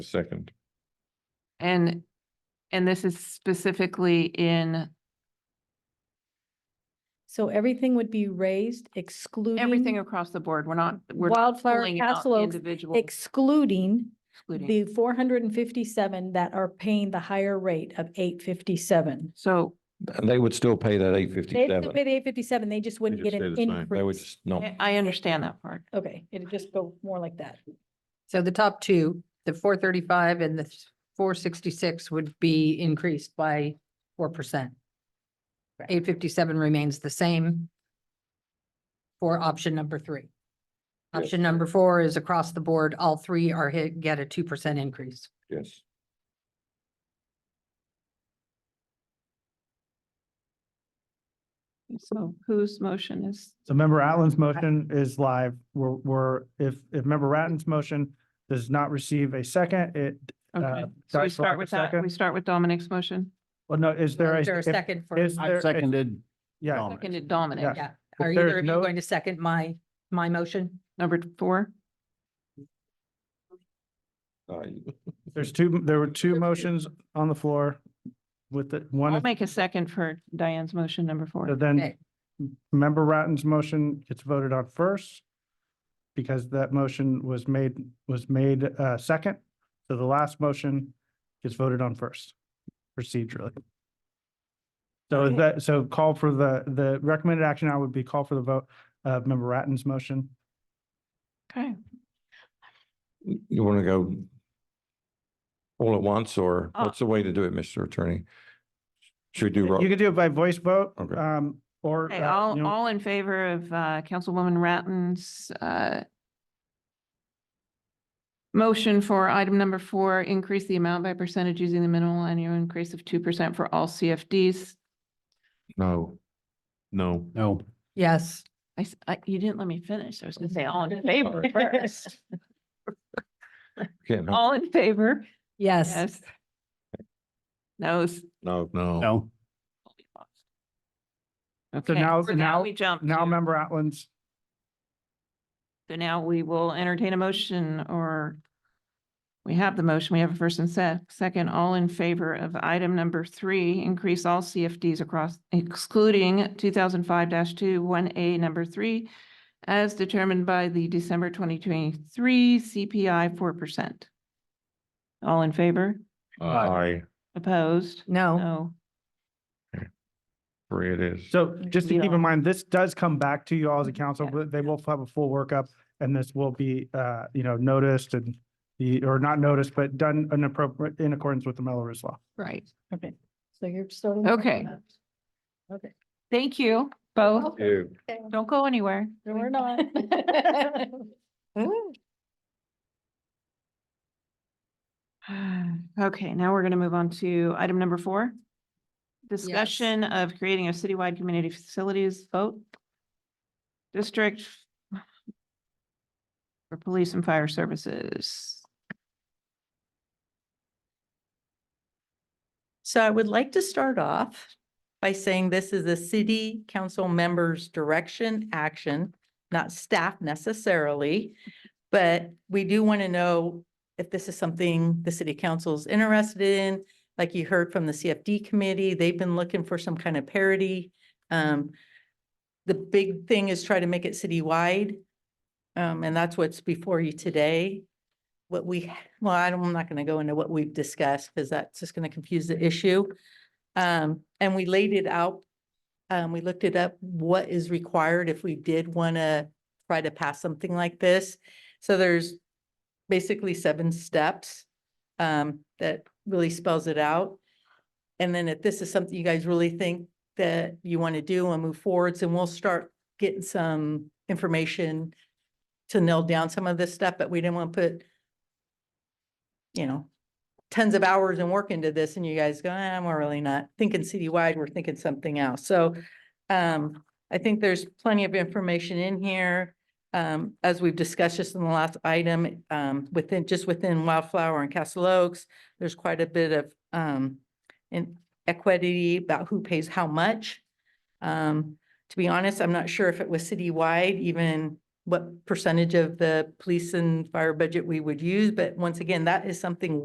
Second. And, and this is specifically in, So everything would be raised excluding. everything across the board. We're not, we're. not Wildflower pulling out Castle Oaks, Individual excluding excluding. the four hundred and fifty-seven that are paying the higher rate of eight fifty-seven. So And they would still pay that eight They fifty-seven. would pay the eight fifty-seven, they just wouldn't get an They would increase. just, Oh. no. I- I understand that part. Okay, it'd just go more like that. So the top two, the four thirty-five and the four sixty-six would be increased by four percent. Eight fifty-seven remains the same for option number three. Yes. Option number four is across the board, all three are hit, get a two percent increase. Yes. So whose motion is, So member Atlin's motion is live. We're, we're, if, if member Ratten's motion does not receive a second, it, okay, Uh, so we sorry, so I start have a with that, second? we start with Dominic's motion. well, no, is there a? Is there a if- second for, Is there? I if- seconded. Yeah, Dom. Seconded Dominic, yeah, If are there's either of you no- going to second my, my motion? number four. Uh, there's two, there were two motions on the floor with the one, I'll is- make a second for Diane's motion, number so four. then Okay. member Ratten's motion gets voted on first because that motion was made, was made, uh, second. So the last motion gets voted on first procedurally. So is Okay. that, so call for the, the recommended action I would be call for the vote of member Ratten's motion. Okay, You want to go all at once, or Uh, what's the way to do it, Mr. Attorney? Should we do, You ro- could do it by voice vote, Okay. um, or. Okay, uh, you all, know, all in favor of uh, Councilwoman Ratten's uh, motion for item number four, increase the amount by percentage using the minimal annual increase of two percent for all CFDs. no, no. No. Yes, I s- I- you didn't let me finish. I was gonna say all in favor first. Can't, help- All in favor? yes, Yes. Noes. no, no. No. Okay, now- so now- we jump. Now to- member Atlin's, So now we will entertain a motion or we have the motion, we have a first and se- second, all in favor of item number three, increase all CFDs across excluding two thousand five two, one A, number three, as determined by the December twenty twenty-three CPI four percent. All in favor? I, Opposed? no, No. three it is. so just to You keep know. in mind, this does come back to you all as a council, Yeah. but they will have a full workup. And this will be, uh, you know, noticed and the, or not noticed, but done in appropriate, in accordance with the Melrose law. Right. Okay, so you're starting. Okay. Okay. Thank you both. You. Don't go anywhere. No, we're not. Okay, now we're gonna move on to item number four. Discussion of creating a citywide community facilities vote. District. For police and fire services. So I would like to start off by saying this is a city council member's direction, action, not staff necessarily. But we do want to know if this is something the city council's interested in. Like you heard from the CFD committee, they've been looking for some kind of parity. Um, the big thing is try to make it citywide. Um, and that's what's before you today. What we, well, I don't- I'm not going to go into what we've discussed because that's just going to confuse the issue. Um, and we laid it out. Um, we looked it up, what is required if we did want to try to pass something like this. So there's basically seven steps um, that really spells it out. And then if this is something you guys really think that you want to do and move forwards, and we'll start getting some information to nail down some of this stuff, but we didn't want to put you know, tons of hours and work into this and you guys go, "Ah, we're really not thinking citywide, we're thinking something else. So um, I think there's plenty of information in here. Um, as we've discussed just in the last item, um, within, just within Wildflower and Castle Oaks, there's quite a bit of um inequity about who pays how much. Um, to be honest, I'm not sure if it was citywide even what percentage of the police and fire budget we would use, but once again, that is something